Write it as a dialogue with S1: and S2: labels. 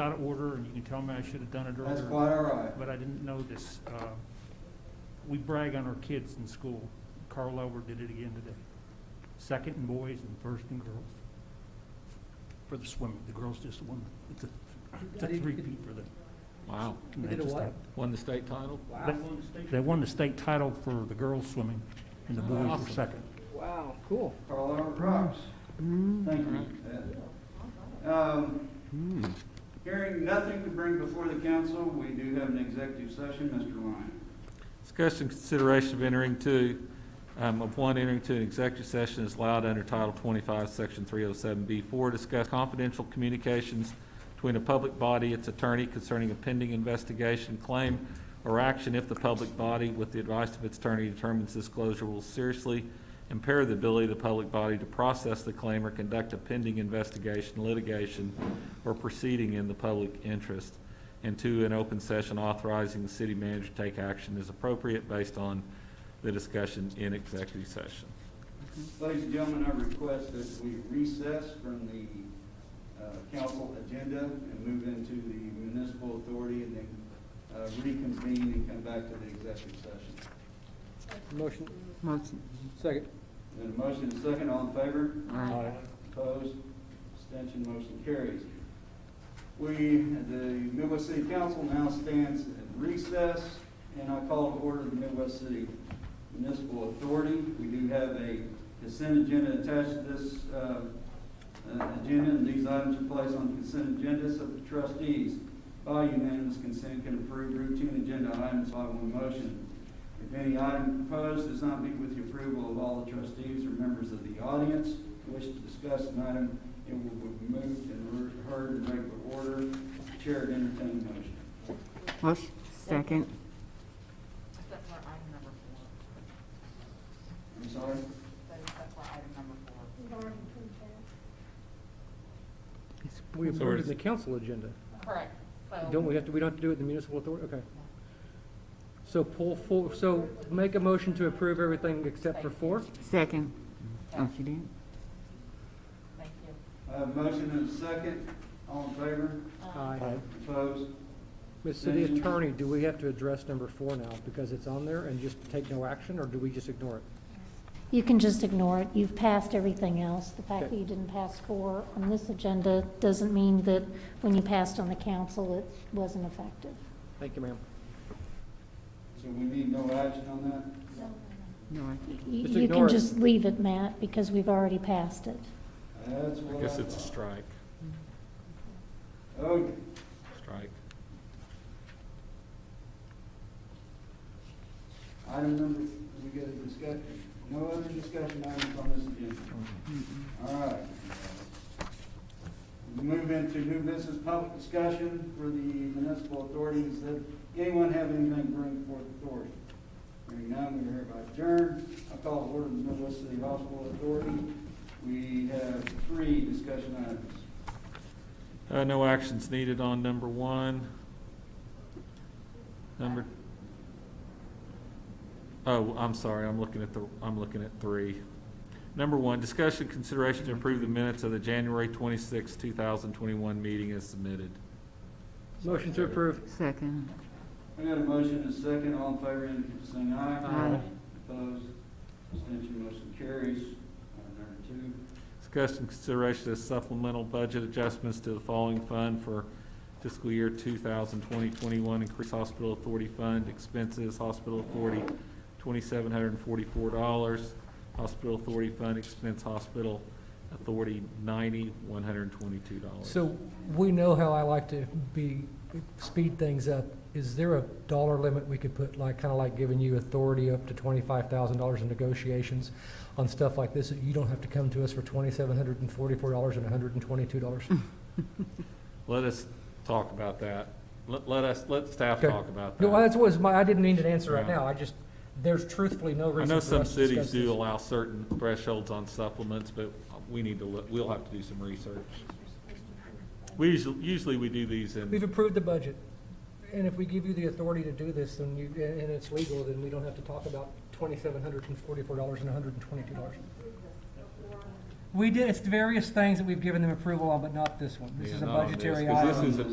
S1: out of order, and you can tell me I should have done it
S2: That's
S1: earlier,
S2: quite all right.
S1: but I didn't know this. Uh, We brag on our kids in school. Carl Elber did it again today. Second in boys and first in girls for the swimming. The girls just won. It's a, it's a three-peat for them.
S3: Wow,
S1: And
S4: You
S1: they
S4: did a
S1: just
S4: what?
S1: have-
S3: won the state title?
S4: Wow,
S1: They won the state title for the girls swimming, and the boys were
S3: Awesome.
S1: second.
S4: wow, cool.
S2: Carl Albert Brooks. Thank you. Yeah. Um, Hearing nothing to bring before the council, we do have an executive session, Mr. Lyon.
S3: Discussion and consideration of entering to, um, of one entering to an executive session is allowed under Title twenty-five, Section three oh seven B four, discuss confidential communications between a public body, its attorney concerning a pending investigation, claim, or action if the public body, with the advice of its attorney, determines disclosure will seriously impair the ability of the public body to process the claim or conduct a pending investigation, litigation, or proceeding in the public interest. And two, an open session authorizing the city manager to take action as appropriate based on the discussion in executive session.
S2: Ladies and gentlemen, I request that we recess from the uh, council agenda and move into the municipal authority and then uh, reconvene and come back to the executive session.
S4: Motion. Motion. Second.
S2: Then a motion and second, all in favor? Opposed? Abstention, motion carries. We, the Midwest City Council now stands in recess, and I call to order the Midwest City Municipal Authority. We do have a consent agenda attached to this uh, uh, agenda, and these items are placed on the consent agenda so the trustees by unanimous consent can approve routine agenda items by one motion. If any item proposed does not meet with the approval of all the trustees or members of the audience who wish to discuss an item, it will be moved and re- heard in regular order. Chair would entertain a motion.
S5: Motion, second.
S6: Except for item number four.
S2: I'm sorry?
S6: That is, that's for item number four.
S4: We
S3: So
S4: approved
S3: it's-
S4: the council agenda.
S6: Correct, so.
S4: Don't we have to, we don't have to do it in the municipal authority? Okay. So pull four, so make a motion to approve everything except for four?
S5: Second. Oh, she did?
S6: Thank you.
S2: I have a motion and a second. All in favor?
S4: Aye.
S2: Opposed?
S4: Ms. City Attorney, do we have to address number four now because it's on there and just take no action, or do we just ignore it?
S7: You can just ignore it. You've passed everything else. The fact
S4: Okay.
S7: that you didn't pass four on this agenda doesn't mean that when you passed on the council, it wasn't effective.
S4: Thank you, ma'am.
S2: So we need no action on that?
S5: No, I
S7: Y-
S4: Just
S7: You
S4: ignore
S7: can
S4: it.
S7: just leave it, Matt, because we've already passed it.
S2: That's
S3: I
S2: what I.
S3: guess it's a
S2: thought.
S3: strike,
S2: Okay.
S3: strike.
S2: Item number, we got a discussion, no other discussion items on this agenda. All right. We Move into new business public discussion for the municipal authorities. Does anyone have anything to bring forth authority? Hearing none, we hereby adjourn. I call to order the Midwest City Hospital Authority. We have three discussion items.
S3: Uh, no actions needed on number one. Number, oh, I'm sorry, I'm looking at the, I'm looking at three. Number one, discussion consideration to approve the minutes of the January twenty-sixth, two thousand twenty-one meeting as submitted.
S4: Motion to approve.
S5: Second.
S2: I got a motion and a second. All in favor, indicate by saying aye.
S5: Aye.
S2: Opposed? Abstention, motion carries. Item number two.
S3: Discussion consideration of supplemental budget adjustments to the following fund for fiscal year 2020-21: increase hospital authority fund expenses, hospital authority, twenty-seven hundred and forty-four dollars, hospital authority fund expense, hospital authority, ninety, one hundred and twenty-two dollars.
S8: So we know how I like to be, speed things up. Is there a dollar limit we could put, like, kind of like giving you authority up to twenty-five thousand dollars in negotiations on stuff like this? You don't have to come to us for twenty-seven hundred and forty-four dollars and hundred and twenty-two dollars?
S3: Let us talk about that. Let, let us, let staff
S8: Okay.
S3: talk about
S8: No,
S3: that.
S8: that's was my, I didn't need an answer right
S3: Yeah.
S8: now. I just, there's truthfully no
S3: I
S8: reason for
S3: know
S8: us to
S3: some cities
S8: discuss
S3: do
S8: this.
S3: allow certain thresholds on supplements, but we need to look, we'll have to do some research. We usually, usually we do these
S8: We've
S3: in,
S8: approved the budget, and if we give you the authority to do this, then you, and and it's legal, then we don't have to talk about twenty-seven hundred and forty-four dollars and hundred and twenty-two dollars. We did, it's various things that we've given them approval on, but not this one. This
S3: Yeah,
S8: is a
S3: not on this,
S8: budgetary
S3: 'cause
S8: item.
S3: this is a